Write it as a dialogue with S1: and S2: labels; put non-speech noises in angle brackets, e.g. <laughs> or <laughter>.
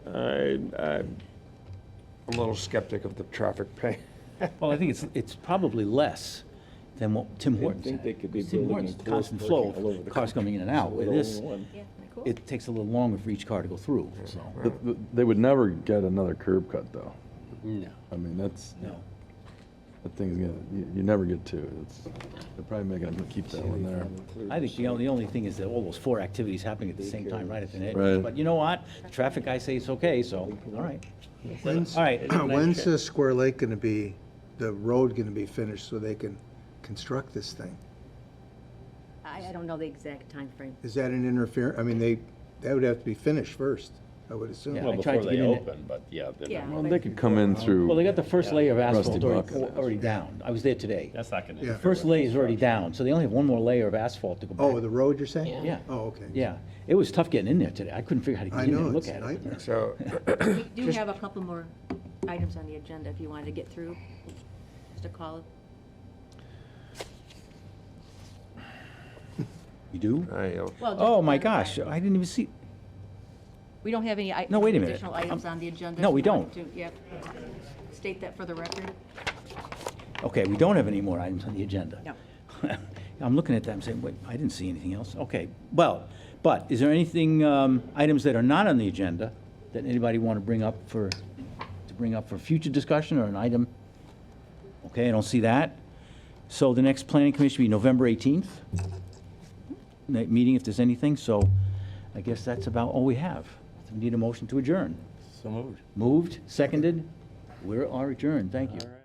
S1: I, I'm a little skeptic of the traffic <laughs> pay.
S2: Well, I think it's, it's probably less than what Tim
S3: I
S2: Hortons
S3: think
S2: had.
S3: they could be
S2: Tim
S3: building
S2: Hortons,
S3: and
S2: constant
S3: parking
S2: flow
S3: all over
S2: of
S3: the
S2: cars coming in and out. With this,
S4: Yeah, cool.
S2: it takes a little longer for each car to go through, so.
S5: Th- They would never get another curb cut, though.
S2: No.
S5: I mean, that's,
S2: No.
S5: that thing's gonna, you, you never get two. It's, they're probably making them keep that one there.
S2: I think the only, the only thing is that all those four activities happening at the same time, right at the end.
S5: Right.
S2: But you know what? The Traffic guy say it's okay, so, all right.
S6: When's,
S2: All right.
S6: <clears throat> when's the Square Lake gonna be, the road gonna be finished so they can construct this thing?
S4: I, I don't know the exact time frame.
S6: Is that an interference? I mean, they, that would have to be finished first, I would
S2: Yeah,
S6: assume.
S2: I
S3: Well,
S2: tried
S3: before they
S2: to get in it.
S3: open, but yeah. they're
S4: Yeah.
S3: not-
S5: Well, they could come in through.
S2: Well, they got the first layer of asphalt
S5: Rusty
S2: already,
S5: bucket.
S2: already down. I was there today.
S3: That's not gonna.
S6: Yeah.
S3: interfere
S2: First
S3: with
S2: layer is already
S3: construction.
S2: down, so they only have one more layer of asphalt to go back.
S6: Oh, the road you're saying?
S2: Yeah.
S6: Oh, okay.
S2: Yeah, it was tough getting in there today. I couldn't figure out how to
S6: I
S2: get in there
S6: know,
S2: and
S6: it's
S2: look
S6: a
S2: at it.
S6: nightmare.
S1: So,
S4: We do have a couple more items on the agenda if you wanted to get through. Mr. Collins?
S2: You do?
S1: I, uh,
S4: Well, just
S2: Oh, my
S4: one
S2: gosh,
S4: item.
S2: I didn't even see,
S4: We don't have any i-
S2: No, wait a minute.
S4: additional items on the agenda.
S2: No,
S4: if
S2: we
S4: you want
S2: don't.
S4: to- Yep. State that for the record.
S2: okay, we don't have any more items on the agenda.
S4: No.
S2: <laughs> I'm looking at that, I'm saying, wait, I didn't see anything else. Okay, well, but is there anything, um, items that are not on the agenda that anybody want to bring up for, to bring up for future discussion or an item? Okay, I don't see that. So the next planning commission will be November 18th, Night meeting if there's anything, so I guess that's about all we have. We Need a motion to adjourn. So moved. Moved, seconded, we are adjourned, thank you.